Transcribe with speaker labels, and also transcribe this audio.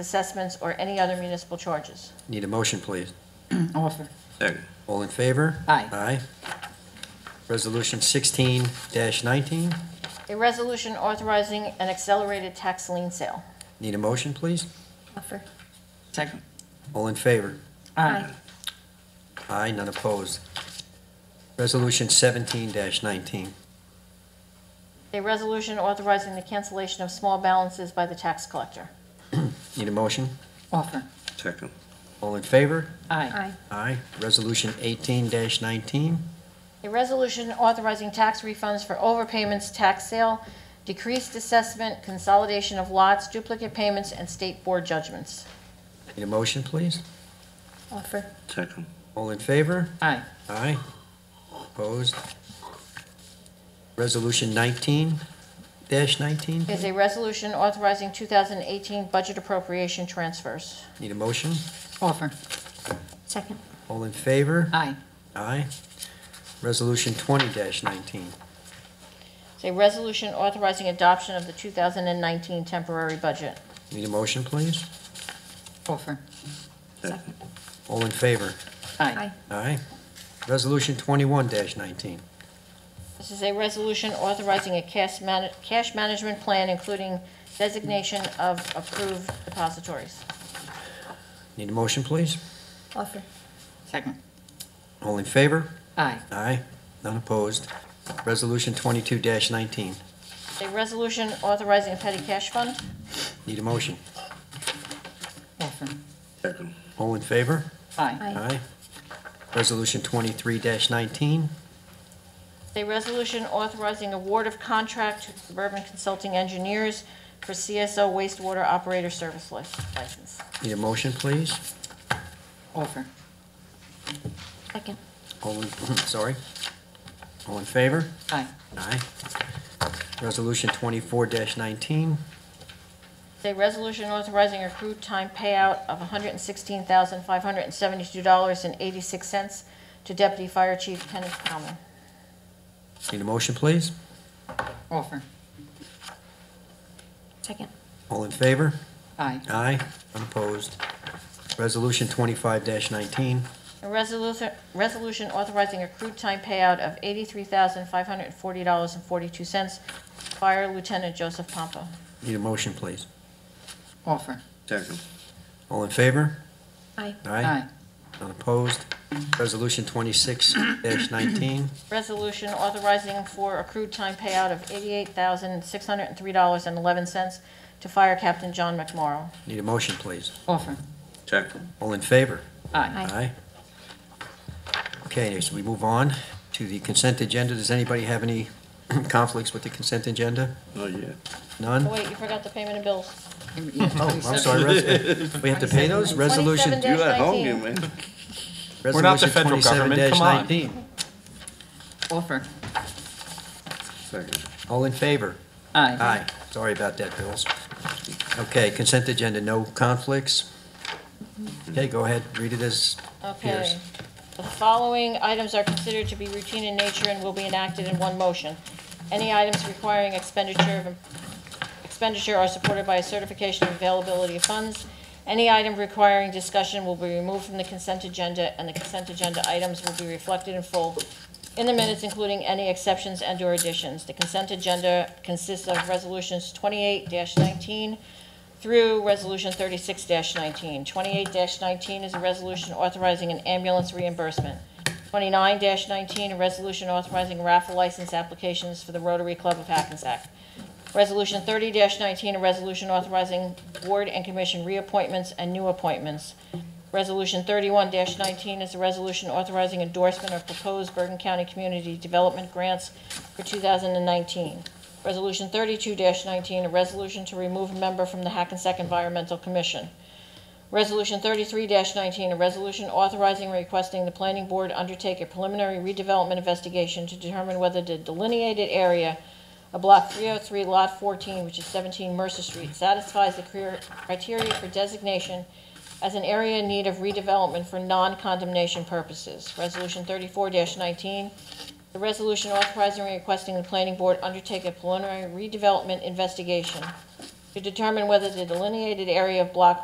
Speaker 1: assessments, or any other municipal charges.
Speaker 2: Need a motion, please.
Speaker 3: Offer.
Speaker 4: Second.
Speaker 2: All in favor?
Speaker 3: Aye.
Speaker 2: Aye. Resolution 16-19,
Speaker 1: A resolution authorizing an accelerated tax lien sale.
Speaker 2: need a motion, please?
Speaker 1: Offer.
Speaker 3: Second.
Speaker 2: All in favor?
Speaker 3: Aye.
Speaker 2: Aye, none opposed. Resolution 17-19,
Speaker 1: A resolution authorizing the cancellation of small balances by the tax collector.
Speaker 2: need a motion?
Speaker 3: Offer.
Speaker 4: Second.
Speaker 2: All in favor?
Speaker 3: Aye.
Speaker 2: Aye. Resolution 18-19,
Speaker 1: A resolution authorizing tax refunds for overpayments, tax sale, decreased assessment, consolidation of lots, duplicate payments, and state board judgments.
Speaker 2: need a motion, please?
Speaker 1: Offer.
Speaker 4: Second.
Speaker 2: All in favor?
Speaker 3: Aye.
Speaker 2: Aye. Opposed? Resolution 19-19,
Speaker 1: Is a resolution authorizing 2018 budget appropriation transfers.
Speaker 2: need a motion?
Speaker 3: Offer.
Speaker 1: Second.
Speaker 2: All in favor?
Speaker 3: Aye.
Speaker 2: Aye. Resolution twenty nineteen.
Speaker 1: Is a resolution authorizing adoption of the 2019 temporary budget.
Speaker 2: Need a motion, please?
Speaker 3: Offer.
Speaker 4: Second.
Speaker 2: All in favor?
Speaker 3: Aye.
Speaker 2: Aye. Resolution twenty-one nineteen.
Speaker 1: This is a resolution authorizing a cash man- cash management plan, including designation of approved depositories.
Speaker 2: Need a motion, please?
Speaker 1: Offer.
Speaker 3: Second.
Speaker 2: All in favor?
Speaker 3: Aye.
Speaker 2: Aye. None opposed. Resolution twenty-two nineteen.
Speaker 1: A resolution authorizing a petty cash fund.
Speaker 2: Need a motion?
Speaker 3: Offer.
Speaker 4: Second.
Speaker 2: All in favor?
Speaker 3: Aye.
Speaker 2: Aye. Resolution twenty-three nineteen.
Speaker 1: A resolution authorizing award of contract to Suburban Consulting Engineers for CSO wastewater operator service li- license.
Speaker 2: Need a motion, please?
Speaker 3: Offer.
Speaker 1: Second.
Speaker 2: All in, sorry. All in favor?
Speaker 3: Aye.
Speaker 2: Aye. Resolution twenty-four nineteen.
Speaker 1: A resolution authorizing accrued time payout of $116,572.86 to Deputy Fire Chief Kenneth Kalman.
Speaker 2: Need a motion, please?
Speaker 3: Offer.
Speaker 1: Second.
Speaker 2: All in favor?
Speaker 3: Aye.
Speaker 2: Aye. Unopposed. Resolution twenty-five nineteen.
Speaker 1: A resolution resolution authorizing accrued time payout of $83,540.42 Fire Lieutenant Joseph Pompa.
Speaker 2: Need a motion, please.
Speaker 3: Offer.
Speaker 4: Second.
Speaker 2: All in favor?
Speaker 1: Aye.
Speaker 2: Aye. Unopposed. Resolution twenty-six nineteen.
Speaker 1: Resolution authorizing for accrued time payout of $88,603.11 to Fire Captain John McMorro.
Speaker 2: Need a motion, please.
Speaker 3: Offer.
Speaker 4: Second.
Speaker 2: All in favor? Aye.
Speaker 3: Aye.
Speaker 2: Okay, so we move on to the consent agenda. Does anybody have any conflicts with the consent agenda?
Speaker 4: Oh, yeah.
Speaker 1: Oh,
Speaker 2: None?
Speaker 1: Wait, you forgot the payment of bills.
Speaker 3: Oh,
Speaker 2: I'm sorry, res- we have to pay those? Resolution,
Speaker 1: 27.
Speaker 4: You at home, you
Speaker 1: 19.
Speaker 4: man.
Speaker 5: We're not the
Speaker 2: resolution
Speaker 5: federal
Speaker 2: twenty-seven
Speaker 5: government, come on.
Speaker 2: nineteen.
Speaker 3: Offer.
Speaker 4: Second.
Speaker 2: All in favor?
Speaker 3: Aye.
Speaker 2: Aye. Sorry about that, Bills. Okay, consent agenda, no conflicts. Okay, go ahead, read it as appears.
Speaker 1: Okay. The following items are considered to be routine in nature and will be enacted in one motion. Any items requiring expenditure of, expenditure are supported by a certification of availability of funds. Any item requiring discussion will be removed from the consent agenda, and the consent agenda items will be reflected in full in the minutes, including any exceptions and/or additions. The consent agenda consists of resolutions twenty-eight nineteen, through Resolution 36-19. 28-19 is a resolution authorizing an ambulance reimbursement. 29-19, a resolution authorizing raffle license applications for the Rotary Club of Hackensack. Resolution 30-19, a resolution authorizing board and commission reappointments and new appointments. Resolution 31-19 is a resolution authorizing endorsement of proposed Bergen County Community Development Grants for 2019. Resolution 32-19, a resolution to remove a member from the Hackensack Environmental Commission. Resolution 33-19, a resolution authorizing and requesting the planning board undertake a preliminary redevelopment investigation to determine whether the delineated area of Block 303, Lot 14, which is 17 Mercer Street, satisfies the clear- criteria for designation as an area in need of redevelopment for non-condemnation purposes. Resolution 34-19, the resolution authorizing and requesting the planning board undertake a preliminary redevelopment investigation to determine whether the delineated area of Block